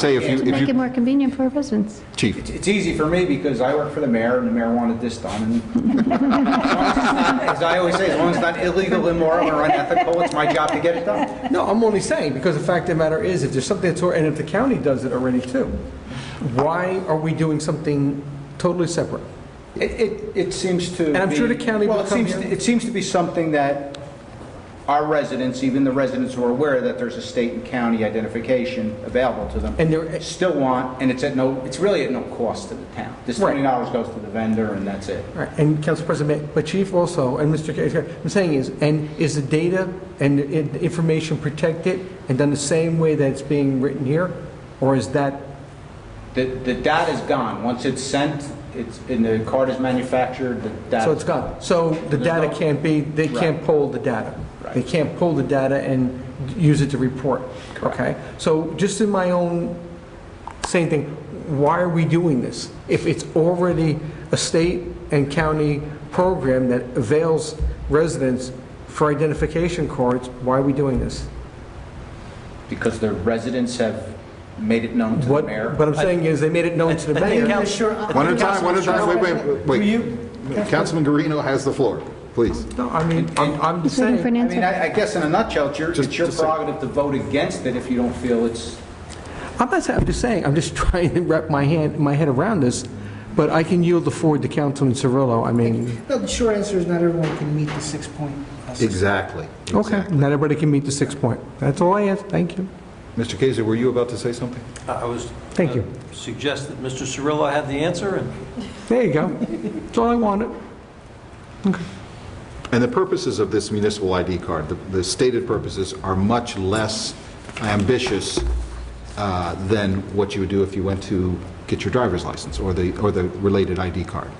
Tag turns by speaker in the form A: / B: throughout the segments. A: Say if you, if
B: Make it
A: you,
B: more convenient for residents.
A: chief,
C: It's, it's easy for me because I work for the mayor and the mayor wanted this done. And As I always say, as long as it's not illegal, immoral, or unethical, it's my job to get it done.
D: No, I'm only saying, because the fact of the matter is, if there's something that's, or- and if the county does it already too, why are we doing something totally separate?
C: It, it, it seems to
D: And I'm
C: be-
D: sure the county will
C: well, it
D: come
C: seems-
D: here.
C: It seems to be something that our residents, even the residents who are aware that there's a state and county identification available to them.
D: And they're-
C: Still want, and it's at no, it's really at no cost to the town. This
D: Right.
C: twenty dollars goes to the vendor and that's it.
D: All right, and Council President, May- but Chief also, and Mr. K, I'm saying is, and is the data and the in- information protected and done the same way that it's being written here? Or is that,
C: The, the data's gone. Once it's sent, it's, and the card is manufactured, the data.
D: so it's gone? So the data
C: no-
D: can't be, they can't pull the data? They can't pull the data and use it to report? Okay, so just in my own same thing, why are we doing this? If it's already a state and county program that avails residents for identification cards, why are we doing this?
C: Because the residents have made it known to the
D: What,
C: mayor.
D: what I'm saying is, they made it known to the mayor.
A: one at a time, one at a time, wait, wait, wait. Councilman Guarino has the floor, please.
D: No, I mean, I'm, I'm
B: He's waiting for an
C: I
D: saying,
C: mean,
B: answer.
C: I I guess in a nutshell, it's your,
A: Just-
C: it's your
A: just a-
C: prerogative to vote against it if you don't feel it's,
D: I'm not saying, I'm just saying, I'm just trying to wrap my hand, my head around this, but I can yield the floor to Councilman Cirillo, I mean,
E: No, the short answer is not everyone can meet the six-point.
A: Exactly.
D: okay,
A: exactly.
D: not everybody can meet the six point. That's all I ask, thank you,
A: Mr. Kizer, were you about to say something?
F: I was...
D: Thank you.
F: uh, Suggest that Mr. Cirillo had the answer, and
D: there you go, that's all I wanted.
A: And the purposes of this municipal ID card, the- the stated purposes are much less ambitious uh, than what you would do if you went to get your driver's license or the, or the related ID card,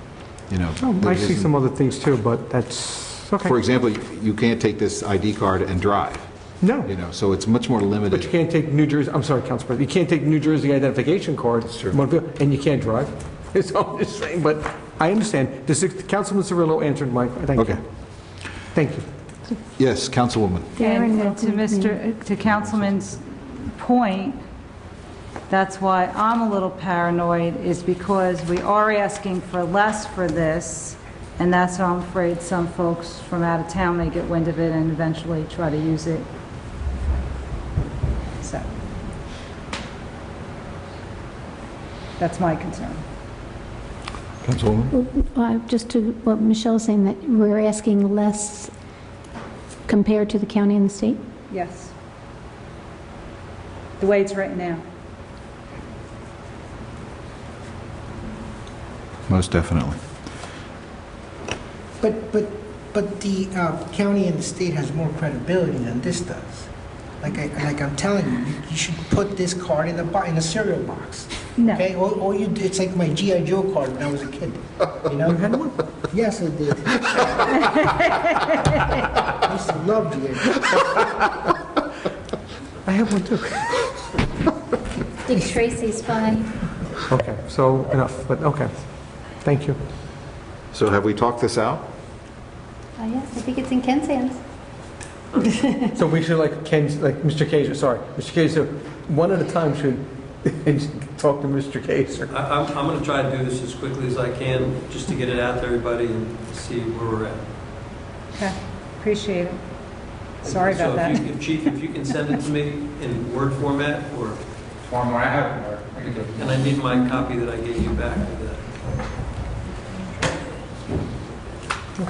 A: you know.
D: Oh, I
A: It
D: see
A: isn't-
D: some other things too, but that's, okay.
A: For example, you can't take this ID card and drive,
D: No,
A: you know, so it's much more limited.
D: but you can't take New Jersey, I'm sorry, Council President, you can't take New Jersey identification card, and you can't drive. It's all the same, but I understand. The six- Councilman Cirillo answered my, thank
A: Okay.
D: you. Thank you.
A: Yes, Councilwoman.
B: Darren
G: And to
B: welcomed me.
G: Mr., to Councilman's point, that's why I'm a little paranoid, is because we are asking for less for this, and that's why I'm afraid some folks from out of town may get wind of it and eventually try to use it. So. That's my concern.
A: Councilwoman?
B: Uh, Just to what Michelle is saying, that we're asking less compared to the county and the state?
G: Yes. The way it's written now.
A: Most definitely.
E: But, but, but the uh, county and the state has more credibility than this does. Like I, like I'm telling you, you- you should put this card in a, bo- in a cereal box.
G: No.
E: Okay, all, all you, do- it's like my GI Joe card when I was a kid, you know? Yes, I did. I used to love GI Joe.
D: I have one too.
H: Dick Tracy's fine.
D: Okay, so enough, but okay. Thank you.
A: So have we talked this out?
H: Oh, yes, I think it's in Ken's hands.
D: So we should like Ken, like Mr. Kazer, sorry, Mr. Kazer, one at a time should talk to Mr. Kazer.
F: I- I'm, I'm going to try to do this as quickly as I can, just to get it out to everybody and see where we're at.
G: Okay, appreciate it. Sorry about that.
F: So if you- if Chief, if you can send it to me in Word format, or,
C: form where I have it. I can do it.
F: and I need my copy that I gave you back of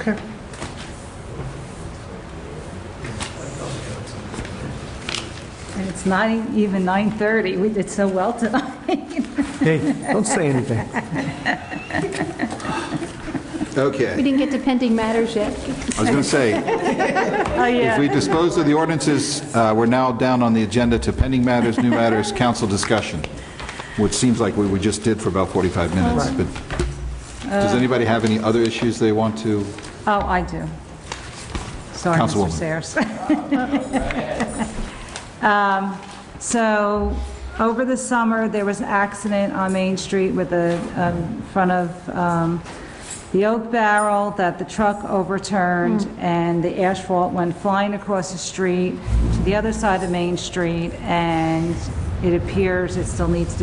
F: that.
D: Okay.
G: And it's not even 9:30, we did so well tonight.
D: Hey, don't say anything.
B: We
A: Okay.
B: didn't get to pending matters yet.
A: I was going to say,
G: Oh,
A: if we dispose of the ordinances, uh, we're now down on the agenda to pending matters, new matters, council discussion, which seems like we we just did for about 45 minutes. But does anybody have any other issues they want to?
G: Oh, I do. Sorry, Mr.
A: Councilwoman.
G: Sayers. Um, So, over the summer, there was an accident on Main Street with a, um, in front of um, the Oak Barrel, that the truck overturned, and the asphalt went flying across the street to the other side of Main Street, and it appears it still needs to